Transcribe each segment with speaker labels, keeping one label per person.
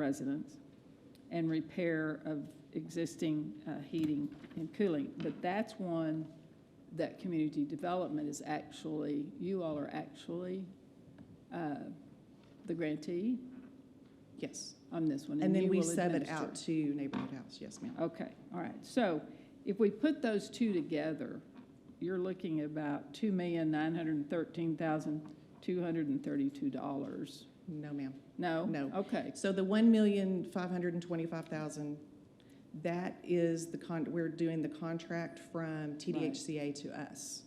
Speaker 1: residents and repair of existing uh, heating and cooling. But that's one that community development is actually, you all are actually uh, the grantee. Yes, on this one.
Speaker 2: And then
Speaker 1: you
Speaker 2: we
Speaker 1: will
Speaker 2: sub it
Speaker 1: administer.
Speaker 2: out to Neighborhood House, yes, ma'am.
Speaker 1: Okay, all right. So if we put those two together, you're looking about two million nine hundred thirteen thousand two hundred and thirty-two dollars.
Speaker 2: No, ma'am.
Speaker 1: No?
Speaker 2: No.
Speaker 1: Okay,
Speaker 2: So the one million, five hundred and twenty-five thousand, that is the con, we're doing the contract from TDHCA to us.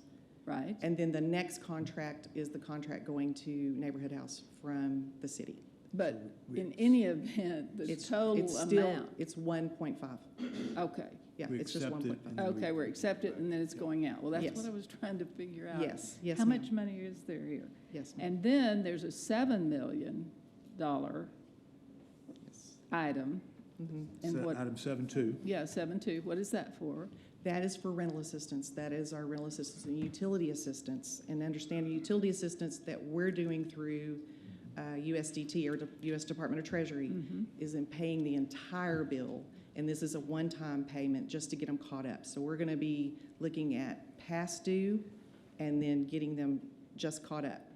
Speaker 1: right.
Speaker 2: And then the next contract is the contract going to Neighborhood House from the city.
Speaker 1: But in any event, the
Speaker 2: It's-
Speaker 1: total
Speaker 2: it's still-
Speaker 1: amount,
Speaker 2: It's one point five.
Speaker 1: okay,
Speaker 2: Yeah,
Speaker 3: We
Speaker 2: it's just
Speaker 3: accept
Speaker 2: one
Speaker 3: it
Speaker 2: point five.
Speaker 3: and then we-
Speaker 1: okay, we're accepted and then it's going out. Well, that's
Speaker 2: Yes.
Speaker 1: what I was trying to figure out.
Speaker 2: Yes, yes,
Speaker 1: How
Speaker 2: ma'am.
Speaker 1: much money is there here?
Speaker 2: Yes, ma'am.
Speaker 1: And then there's a seven million dollar
Speaker 2: Yes.
Speaker 1: item.
Speaker 2: Mhm.
Speaker 1: And
Speaker 3: Se-
Speaker 1: what-
Speaker 3: Item seven two.
Speaker 1: Yeah, seven two, what is that for?
Speaker 2: That is for rental assistance. That is our rental assistance and utility assistance. And understanding utility assistance that we're doing through uh, USDT or the U.S. Department of Treasury
Speaker 1: Mhm.
Speaker 2: is in paying the entire bill. And this is a one-time payment just to get them caught up. So we're going to be looking at past due and then getting them just caught up.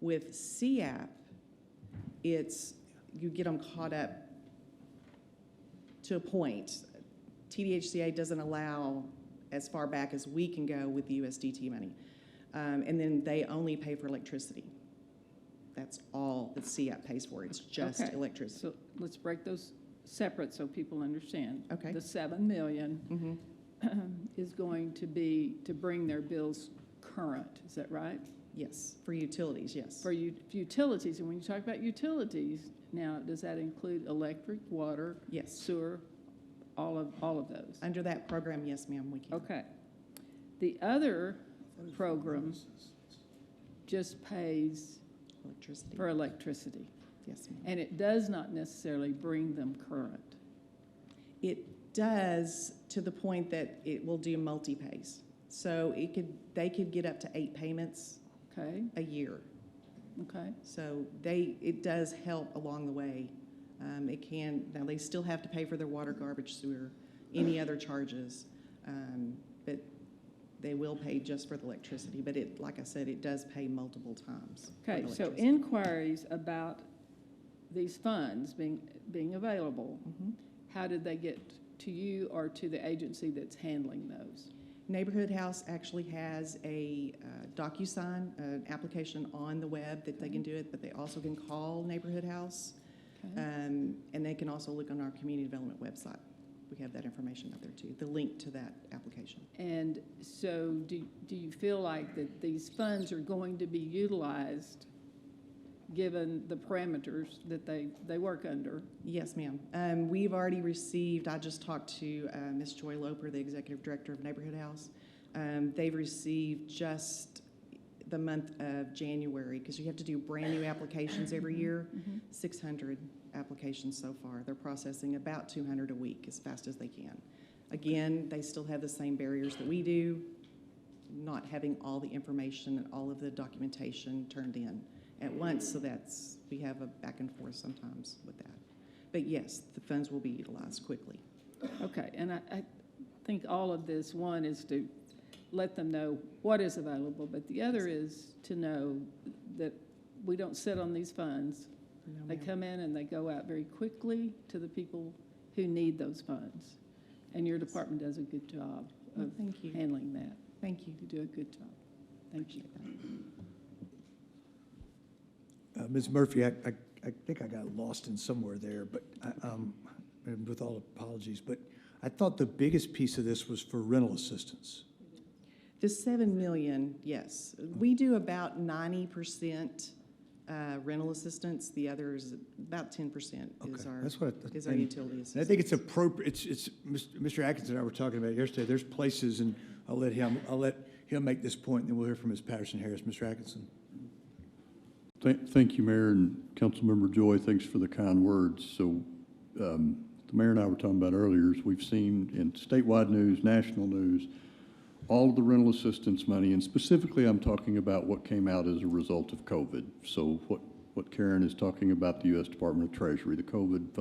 Speaker 2: With CAP, it's, you get them caught up to a point. TDHCA doesn't allow as far back as we can go with the USDT money. Um, and then they only pay for electricity. That's all that CAP pays for. It's just
Speaker 1: Okay.
Speaker 2: electricity.
Speaker 1: So let's break those separate so people understand.
Speaker 2: Okay.
Speaker 1: The seven million
Speaker 2: hmm
Speaker 1: is going to be to bring their bills current, is that right?
Speaker 2: Yes, for utilities, yes.
Speaker 1: For u- utilities, and when you talk about utilities, now, does that include electric, water,
Speaker 2: yes.
Speaker 1: sewer, all of, all of those?
Speaker 2: Under that program, yes, ma'am, we can.
Speaker 1: Okay. The other program just pays
Speaker 2: Electricity.
Speaker 1: for electricity,
Speaker 2: Yes, ma'am.
Speaker 1: and it does not necessarily bring them current.
Speaker 2: It does to the point that it will do multi-pays. So it could, they could get up to eight payments
Speaker 1: Okay,
Speaker 2: a year.
Speaker 1: okay,
Speaker 2: So they, it does help along the way. Um, it can, now they still have to pay for their water, garbage, sewer, any other charges. Um, but they will pay just for the electricity, but it, like I said, it does pay multiple times. for
Speaker 1: okay.
Speaker 2: the
Speaker 1: So
Speaker 2: electricity.
Speaker 1: inquiries about these funds being, being available,
Speaker 2: Mhm.
Speaker 1: how did they get to you or to the agency that's handling those?
Speaker 2: Neighborhood House actually has a uh, DocuSign, an application on the web that they can do it, but they also can call Neighborhood House.
Speaker 1: Okay.
Speaker 2: Um, and they can also look on our community development website. We have that information out there too, the link to that application.
Speaker 1: And so do, do you feel like that these funds are going to be utilized, given the parameters that they, they work under?
Speaker 2: Yes, ma'am. Um, we've already received, I just talked to uh, Ms. Joy Loper, the Executive Director of Neighborhood House. Um, they've received just the month of January, because you have to do brand new applications every year, 600 applications so far. They're processing about 200 a week as fast as they can. Again, they still have the same barriers that we do, not having all the information and all of the documentation turned in at once, so that's, we have a back and forth sometimes with that. But yes, the funds will be utilized quickly.
Speaker 1: Okay, and I, I think all of this, one is to let them know what is available, but the other is to know that we don't sit on these funds.
Speaker 2: No,
Speaker 1: They
Speaker 2: ma'am.
Speaker 1: come in and they go out very quickly to the people who need those funds. And your department does a good job
Speaker 2: Well,
Speaker 1: of
Speaker 2: Thank you,
Speaker 1: handling that.
Speaker 2: thank you.
Speaker 1: You do a good job. Thank you.
Speaker 3: Uh, Ms. Murphy, I, I, I think I got lost in somewhere there, but I, um, and with all apologies, but I thought the biggest piece of this was for rental assistance.
Speaker 2: The seven million, yes. We do about ninety percent uh, rental assistance, the other is about ten percent
Speaker 3: Okay,
Speaker 2: is our,
Speaker 3: that's what.
Speaker 2: is our
Speaker 3: and-
Speaker 2: utility
Speaker 3: And I
Speaker 2: assistance.
Speaker 3: think it's appropriate, it's, it's, Mr. Atkins and I were talking about it yesterday, there's places, and I'll let him, I'll let him make this point, and then we'll hear from Ms. Patterson Harris. Mr. Atkinson?
Speaker 4: Thank thank you, Mayor, and Councilmember Joy, thanks for the kind words. So um, the mayor and I were talking about earlier, is we've seen in statewide news, national news, all of the rental assistance money, and specifically, I'm talking about what came out as a result of COVID. So what what Karen is talking about, the U.S. Department of Treasury, the COVID fund.